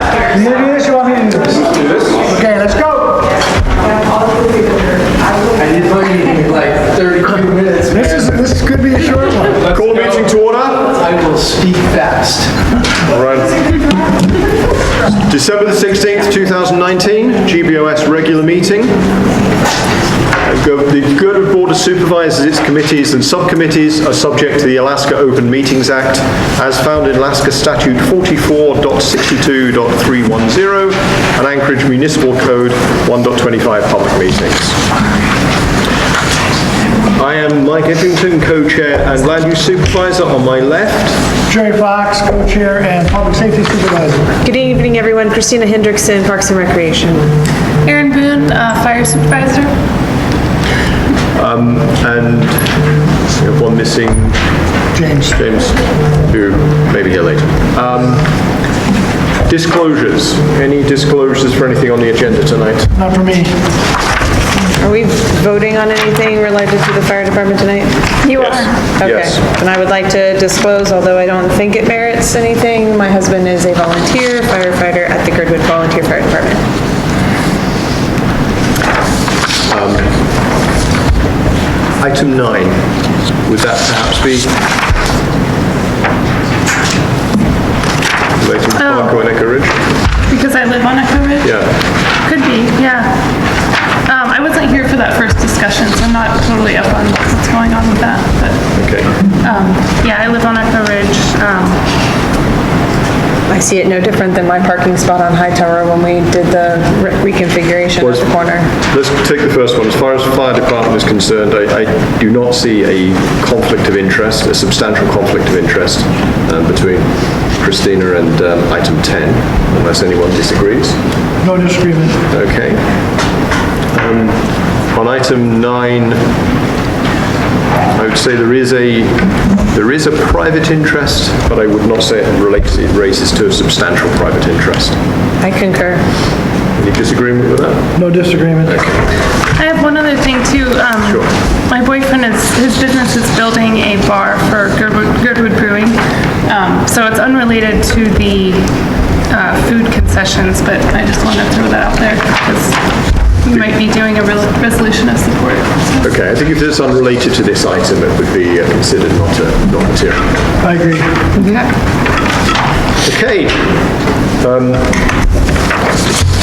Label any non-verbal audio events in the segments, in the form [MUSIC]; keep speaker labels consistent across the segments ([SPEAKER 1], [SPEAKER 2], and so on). [SPEAKER 1] Any issue on any of this? Okay, let's go.
[SPEAKER 2] I did like you like 32 minutes. man.
[SPEAKER 1] This is, this could be a short one.
[SPEAKER 3] Call meeting to order.
[SPEAKER 2] I will speak fast.
[SPEAKER 3] All right. December the 16th, 2019, GBOS regular meeting. And go- The good of Board of Supervisors, its committees and subcommittees are subject to the Alaska Open Meetings Act as found in Alaska Statute 44.62.310 and Anchorage Municipal Code 1.25 Public Meetings. I am Mike Edgington, co-chair and land use supervisor on my left.
[SPEAKER 1] Jerry Fox, co-chair and public safety supervisor.
[SPEAKER 4] Good evening, everyone. Christina Hendrickson, Parks and Recreation.
[SPEAKER 5] Aaron Boone, uh, Fire Supervisor.
[SPEAKER 3] And we have one missing,
[SPEAKER 1] James.
[SPEAKER 3] James, who may be here later. Um, Disclosures, any disclosures for anything on the agenda tonight?
[SPEAKER 1] Not for me.
[SPEAKER 4] Are we voting on anything related to the fire department tonight? You
[SPEAKER 3] Yes.
[SPEAKER 4] Okay.
[SPEAKER 3] Yes.
[SPEAKER 4] And I would like to disclose, although I don't think it merits anything, my husband is a volunteer firefighter at the Girdwood Volunteer Fire Department.
[SPEAKER 3] Um, Item nine, would that perhaps be? Relating to Parker and Echo Ridge?
[SPEAKER 5] Because I live on Echo Ridge?
[SPEAKER 3] Yeah,
[SPEAKER 5] Could be, yeah. Um, I wasn't here for that first discussion, so I'm not totally up on what's going on with that, but,
[SPEAKER 3] okay.
[SPEAKER 5] um, yeah, I live on Echo Ridge. Um,
[SPEAKER 4] I see it no different than my parking spot on High Tower when we did the re- reconfiguration
[SPEAKER 3] Was-
[SPEAKER 4] of the corner.
[SPEAKER 3] Let's take the first one. As far as the fire department is concerned, I, I do not see a conflict of interest, a substantial conflict of interest um, between Christina and um, item 10, unless anyone disagrees.
[SPEAKER 1] No disagreement.
[SPEAKER 3] Okay. Um, On item nine, I would say there is a, there is a private interest, but I would not say it relates, it raises to a substantial private interest.
[SPEAKER 4] I concur.
[SPEAKER 3] Any disagreement with that?
[SPEAKER 1] No disagreement.
[SPEAKER 5] I have one other thing too. Um,
[SPEAKER 3] Sure.
[SPEAKER 5] My boyfriend is, his business is building a bar for Girdwood Girdwood Brewing. Um, so it's unrelated to the, uh, food concessions, but I just want to throw that out there because you might be doing a rel- resolution of support.
[SPEAKER 3] Okay, I think if it's unrelated to this item, it would be uh, considered not a, not material.
[SPEAKER 1] I agree.
[SPEAKER 3] Mm-hmm. Okay. um,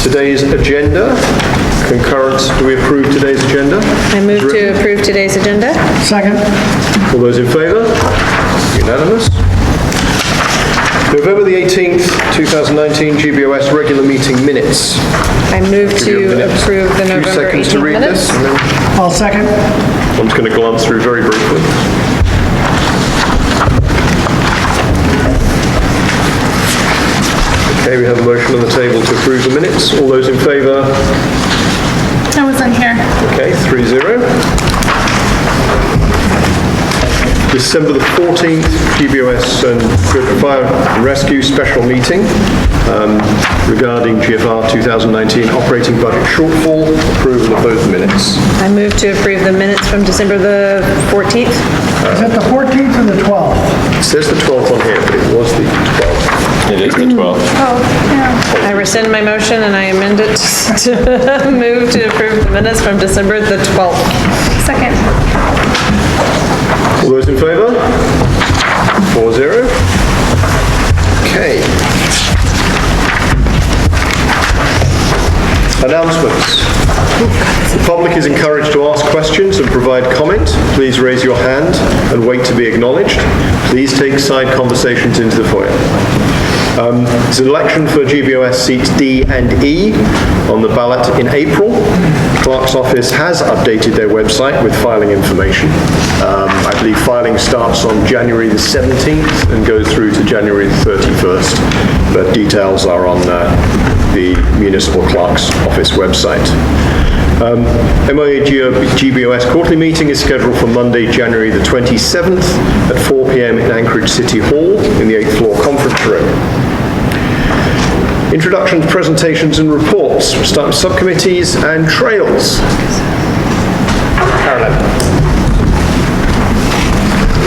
[SPEAKER 3] Today's agenda, concurrence, do we approve today's agenda?
[SPEAKER 4] I move to approve today's agenda.
[SPEAKER 1] Second,
[SPEAKER 3] All those in favour? Unanimous. November the 18th, 2019, GBOS regular meeting minutes.
[SPEAKER 4] I move
[SPEAKER 3] Give you a
[SPEAKER 4] to
[SPEAKER 3] minute,
[SPEAKER 4] approve the
[SPEAKER 3] few
[SPEAKER 4] November
[SPEAKER 3] seconds to
[SPEAKER 4] 18
[SPEAKER 3] read this,
[SPEAKER 4] minutes.
[SPEAKER 3] and then
[SPEAKER 1] I'll second.
[SPEAKER 3] I'm just going to glance through very briefly. Okay, we have a motion on the table to approve the minutes. All those in favour?
[SPEAKER 5] I wasn't here.
[SPEAKER 3] Okay, 3-0. December the 14th, GBOS and Grid Fire and Rescue Special Meeting um, regarding GFR 2019 Operating Budget Shortfall, approval of those minutes.
[SPEAKER 4] I move to approve the minutes from December the 14th.
[SPEAKER 1] Is it the 14th or the 12th?
[SPEAKER 3] It says the 12th on here, but it was the 12th.
[SPEAKER 6] It is the 12th.
[SPEAKER 5] Oh, yeah.
[SPEAKER 4] I rescind my motion and I amend it [LAUGHS] to move to approve the minutes from December the 12th.
[SPEAKER 5] Second.
[SPEAKER 3] All those in favour? 4-0. Okay. Announcements. The public is encouraged to ask questions and provide comment. Please raise your hand and wait to be acknowledged. Please take side conversations into the foyer. Um, There's an election for GBOS seats D and E on the ballot in April. Clerk's office has updated their website with filing information. Um, I believe filing starts on January the 17th and goes through to January the 31st, but details are on uh, the municipal clerk's office website. Um, MIA GBOS quarterly meeting is scheduled for Monday, January the 27th at 4 PM in Anchorage City Hall in the 8th floor conference room. Introductions, presentations, and reports, from sub- subcommittees and trails. Carolyn.